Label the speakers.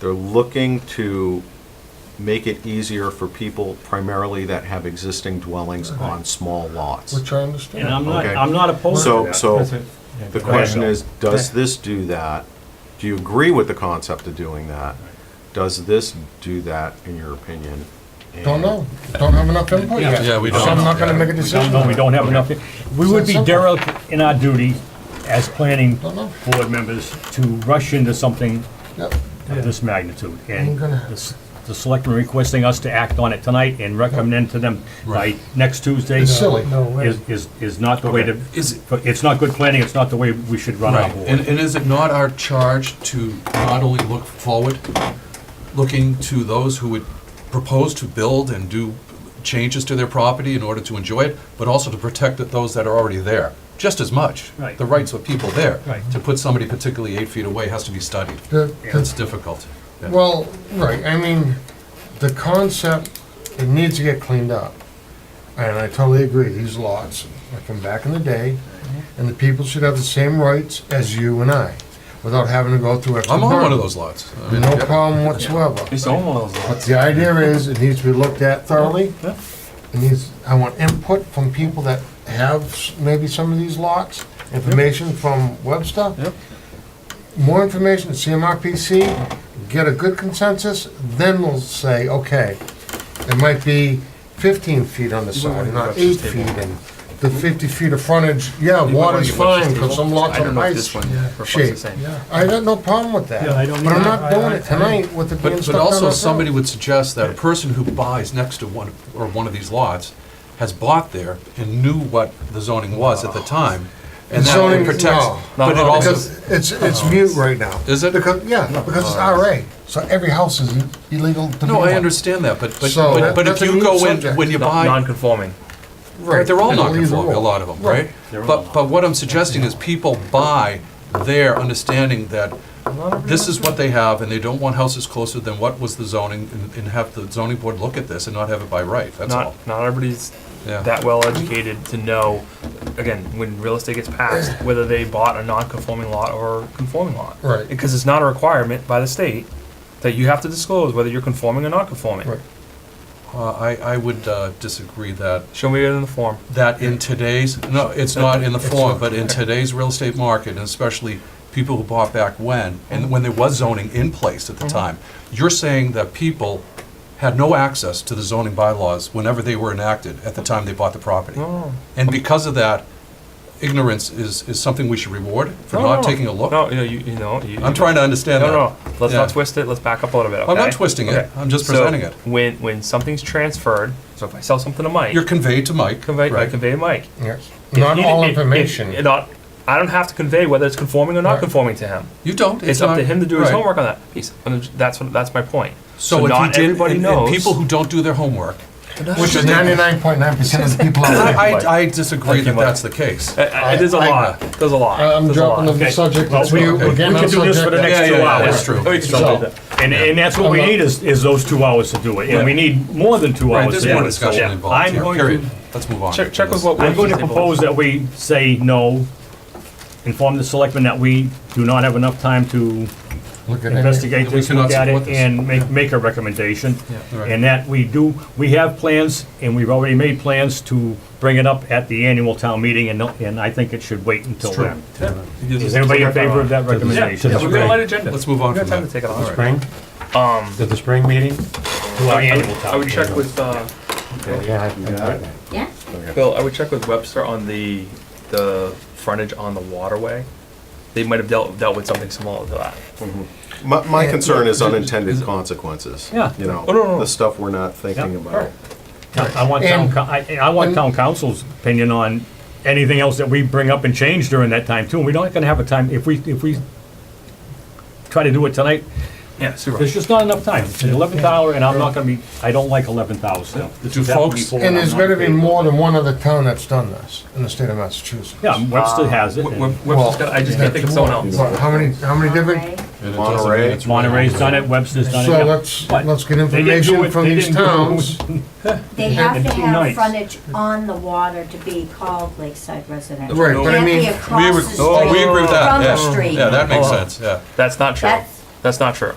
Speaker 1: They're looking to make it easier for people primarily that have existing dwellings on small lots.
Speaker 2: which I
Speaker 3: And
Speaker 2: understand.
Speaker 3: I'm not,
Speaker 1: Okay.
Speaker 3: I'm not opposed to
Speaker 1: So,
Speaker 3: that.
Speaker 1: so
Speaker 4: Yeah,
Speaker 1: the
Speaker 4: go
Speaker 1: question
Speaker 4: ahead.
Speaker 1: is, does this do that? Do you agree with the concept of doing that? Does this do that, in your opinion? And-
Speaker 2: Don't know, don't have enough input
Speaker 3: Yeah.
Speaker 2: yet.
Speaker 5: Yeah, we
Speaker 2: So
Speaker 5: don't.
Speaker 2: I'm not gonna make a
Speaker 3: We don't
Speaker 2: decision.
Speaker 3: know, we don't have enough, we would be
Speaker 2: Is that simple?
Speaker 3: derelict in our duty as planning
Speaker 2: Don't know.
Speaker 3: board members to rush into something
Speaker 2: Yep.
Speaker 3: of this magnitude.
Speaker 2: Ain't
Speaker 3: And
Speaker 2: gonna
Speaker 3: the s- the selectmen requesting us to act on it tonight and recommend to them by next Tuesday.
Speaker 2: It's silly.
Speaker 4: No way.
Speaker 3: Is, is, is not the way to,
Speaker 5: Is,
Speaker 3: it's not good planning, it's not the way we should run our
Speaker 5: right, and,
Speaker 3: board.
Speaker 5: and is it not our charge to not only look forward, looking to those who would propose to build and do changes to their property in order to enjoy it, but also to protect that those that are already there, just as much?
Speaker 3: Right.
Speaker 5: The rights of people there.
Speaker 3: Right.
Speaker 5: To put somebody particularly eight feet away has to be studied.
Speaker 2: The-
Speaker 5: That's difficult. Yeah.
Speaker 2: Well, right, I mean, the concept, it needs to get cleaned up. And I totally agree, these lots, like from back in the day, and the people should have the same rights as you and I, without having to go through extra
Speaker 5: I'm on one of
Speaker 2: burden.
Speaker 5: those lots. I mean,
Speaker 2: No
Speaker 5: yeah.
Speaker 2: problem whatsoever.
Speaker 4: It's almost
Speaker 2: But the idea is, it needs to be looked at thoroughly. It needs, I want input from people that have s- maybe some of these lots, information from Webster. More information, CMRPC, get a good consensus, then we'll say, okay, it might be fifteen feet on the side, not eight feet, and the fifty feet of frontage, yeah, water's fine, because some lots are ice shape. I got no problem with that,
Speaker 3: Yeah, I don't
Speaker 2: but I'm
Speaker 3: either.
Speaker 2: not doing it tonight with the being
Speaker 5: But,
Speaker 2: stuck
Speaker 5: but
Speaker 2: down
Speaker 5: also,
Speaker 2: our
Speaker 5: somebody
Speaker 2: throat.
Speaker 5: would suggest that a person who buys next to one, or one of these lots, has bought there and knew what the zoning was at the time, and that
Speaker 2: Zoning,
Speaker 5: it protects,
Speaker 2: no.
Speaker 5: but it
Speaker 4: No, no,
Speaker 2: Because
Speaker 5: also, Uh-huh.
Speaker 2: it's, it's mute right now.
Speaker 5: Is it?
Speaker 2: Because, yeah, because it's RA, so every house is illegal to be
Speaker 5: no, I
Speaker 2: one.
Speaker 5: understand that, but, but,
Speaker 2: So,
Speaker 5: but- but
Speaker 2: that's
Speaker 5: if
Speaker 2: a
Speaker 5: you
Speaker 2: moot
Speaker 5: go in,
Speaker 2: subject.
Speaker 5: when you buy,
Speaker 4: Non-conforming.
Speaker 2: Right.
Speaker 5: they're all
Speaker 2: And leave the
Speaker 5: non-conforming, a
Speaker 2: rule.
Speaker 5: lot of them, right? But, but what I'm suggesting is people buy there understanding that this is what they have, and they don't want houses closer than what was the zoning, and- and have the zoning board look at this and not have it by right, that's all.
Speaker 4: Not, not everybody's
Speaker 5: Yeah.
Speaker 4: that well educated to know, again, when real estate gets passed, whether they bought a non-conforming lot or a conforming lot.
Speaker 2: Right.
Speaker 4: Because it's not a requirement by the state that you have to disclose whether you're conforming or not conforming.
Speaker 2: Right.
Speaker 5: Uh, I, I would uh, disagree that,
Speaker 4: Show me it in the form.
Speaker 5: that in today's, no, it's not in the form,
Speaker 2: not.
Speaker 5: but in today's real estate market, and especially people who bought back when, and when there was zoning in place at the
Speaker 4: Mm-hmm.
Speaker 5: time, you're saying that people had no access to the zoning bylaws whenever they were enacted at the time they bought the property.
Speaker 4: No.
Speaker 5: And because of that, ignorance is, is something we should reward for
Speaker 4: No, no,
Speaker 5: not
Speaker 4: no.
Speaker 5: taking a look.
Speaker 4: No, you know, you, you know. You,
Speaker 5: I'm trying to
Speaker 4: No,
Speaker 5: understand that.
Speaker 4: no, let's
Speaker 5: Yeah.
Speaker 4: not twist it, let's back up a little bit,
Speaker 5: I'm not
Speaker 4: okay?
Speaker 5: twisting it,
Speaker 4: Okay.
Speaker 5: I'm just
Speaker 4: So,
Speaker 5: presenting it.
Speaker 4: When, when something's transferred, so if I sell something to Mike,
Speaker 5: You're conveyed to Mike,
Speaker 4: convey, I
Speaker 5: right?
Speaker 4: convey to Mike.
Speaker 2: Yes, not
Speaker 4: He-
Speaker 2: all
Speaker 4: it- it- it
Speaker 2: information.
Speaker 4: not- I don't have to convey whether it's conforming or not
Speaker 2: Right.
Speaker 4: conforming to him.
Speaker 5: You don't.
Speaker 4: It's, up
Speaker 5: not-
Speaker 4: to him to do his
Speaker 5: right.
Speaker 4: homework on that piece. And that's what, that's my point.
Speaker 5: So, if
Speaker 4: not
Speaker 5: he did,
Speaker 4: everybody
Speaker 5: and- and
Speaker 4: knows.
Speaker 5: people who don't do their homework.
Speaker 2: Which is ninety-nine point nine percent of the people out there.
Speaker 5: I, I, I disagree
Speaker 4: Thank you,
Speaker 5: that
Speaker 4: Mike.
Speaker 5: that's the case.
Speaker 4: Uh, uh, there's a
Speaker 2: I- I-
Speaker 4: lot. There's a lot.
Speaker 2: Uh, I'm
Speaker 4: There's a lot.
Speaker 2: dropping the
Speaker 3: Okay.
Speaker 2: subject,
Speaker 3: Well,
Speaker 2: let's
Speaker 3: we-
Speaker 2: move,
Speaker 3: we-
Speaker 2: we're getting
Speaker 3: we
Speaker 2: on
Speaker 3: can do this for the
Speaker 2: subject.
Speaker 3: next
Speaker 5: Yeah,
Speaker 3: two
Speaker 5: yeah, yeah,
Speaker 3: hours.
Speaker 5: that's true.
Speaker 4: Oh, we can
Speaker 2: So-
Speaker 4: jump into
Speaker 3: And, and that's what we
Speaker 2: I'm not-
Speaker 3: need is, is those two hours to do it, and we need more than two
Speaker 5: Right,
Speaker 3: hours
Speaker 5: there's
Speaker 3: to do
Speaker 5: more
Speaker 3: it. So,
Speaker 5: discussion
Speaker 3: yeah,
Speaker 5: involved
Speaker 3: I'm
Speaker 5: here,
Speaker 3: going to-
Speaker 5: period. Let's move on.
Speaker 4: Check- check with what-
Speaker 3: I'm going to propose that we say no, inform the selectmen that we do not have enough time to
Speaker 2: Look at that.
Speaker 3: investigate
Speaker 5: We
Speaker 3: this,
Speaker 5: cannot
Speaker 3: look at
Speaker 5: support
Speaker 3: it,
Speaker 5: this.
Speaker 3: and make, make a recommendation.
Speaker 5: Yeah, right.
Speaker 3: And that we do, we have plans, and we've already made plans to bring it up at the annual town meeting, and, no- and I think it should wait until then. Is everybody in favor of that
Speaker 4: Yeah,
Speaker 3: recommendation?
Speaker 4: yeah, we're gonna light agenda.
Speaker 5: Let's move on
Speaker 4: We got
Speaker 5: from
Speaker 4: time
Speaker 5: that.
Speaker 4: to take it off.
Speaker 6: Spring?
Speaker 4: Um,
Speaker 6: Did the spring meeting?
Speaker 3: To our annual town
Speaker 4: I would
Speaker 3: meeting.
Speaker 4: check with uh,
Speaker 6: Yeah, I haven't got it.
Speaker 7: Yeah,
Speaker 4: Bill. I would check with Webster on the the frontage on the waterway. They might have dealt dealt with something similar to that.
Speaker 1: My, my concern is unintended consequences.
Speaker 3: Yeah.
Speaker 1: You know,
Speaker 4: Oh, no, no, no.
Speaker 1: the stuff we're not thinking
Speaker 3: Yeah.
Speaker 1: about.
Speaker 3: I want town,
Speaker 2: And-
Speaker 3: coun- I, I want
Speaker 2: and-
Speaker 3: town council's opinion on anything else that we bring up and change during that time too. And we're not gonna have a time, if we, if we try to do it tonight,
Speaker 4: Yeah, super.
Speaker 3: there's just not enough time. It's the eleventh hour and I'm not gonna be, I don't like eleventh hours.
Speaker 5: Do folks-
Speaker 2: And there's gotta be more than one other town that's done this in the state of Massachusetts.
Speaker 3: Yeah, Webster has it.
Speaker 4: Uh, Web-
Speaker 3: and
Speaker 4: Web- Webster's got. I just can't think of someone else.
Speaker 2: But How many, how many different,
Speaker 7: okay.
Speaker 1: Monterey.
Speaker 3: Monterey's done it, Webster's done it.
Speaker 2: so
Speaker 3: yeah.
Speaker 2: let's,
Speaker 3: But
Speaker 2: let's get
Speaker 3: they didn't
Speaker 2: information
Speaker 3: do it-
Speaker 2: from
Speaker 3: they
Speaker 2: these
Speaker 3: didn't do it.
Speaker 2: towns.
Speaker 7: They have to
Speaker 3: two
Speaker 7: have
Speaker 3: nights.
Speaker 7: frontage on the water to be called Lakeside Residential.
Speaker 2: Right, but I
Speaker 7: Can't be
Speaker 2: mean-
Speaker 7: across
Speaker 5: We
Speaker 7: the
Speaker 5: agree, oh, we
Speaker 7: street
Speaker 5: agree with
Speaker 7: from
Speaker 5: that,
Speaker 7: the
Speaker 5: yeah.
Speaker 7: street.
Speaker 5: Yeah, that makes
Speaker 4: Oh.
Speaker 5: sense, yeah.
Speaker 4: That's not true.
Speaker 7: That's-
Speaker 4: That's not true.